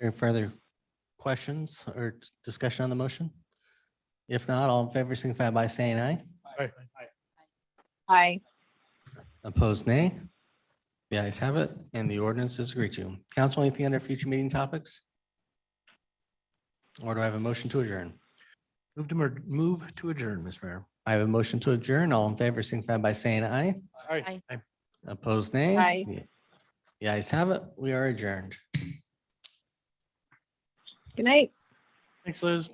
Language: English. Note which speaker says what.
Speaker 1: Any further questions or discussion on the motion? If not, all in favor, signify by saying aye.
Speaker 2: Aye.
Speaker 1: Opposed, nay. The ayes have it, and the ordinance is agreed to. Council, anything under future meeting topics? Or do I have a motion to adjourn?
Speaker 3: Move to, mer- move to adjourn, Mr. Mayor.
Speaker 1: I have a motion to adjourn. All in favor, signify by saying aye.
Speaker 3: Aye. Aye.
Speaker 1: Opposed, nay.
Speaker 2: Aye.
Speaker 1: The- The ayes have it. We are adjourned.
Speaker 2: Good night.
Speaker 3: Thanks, Liz.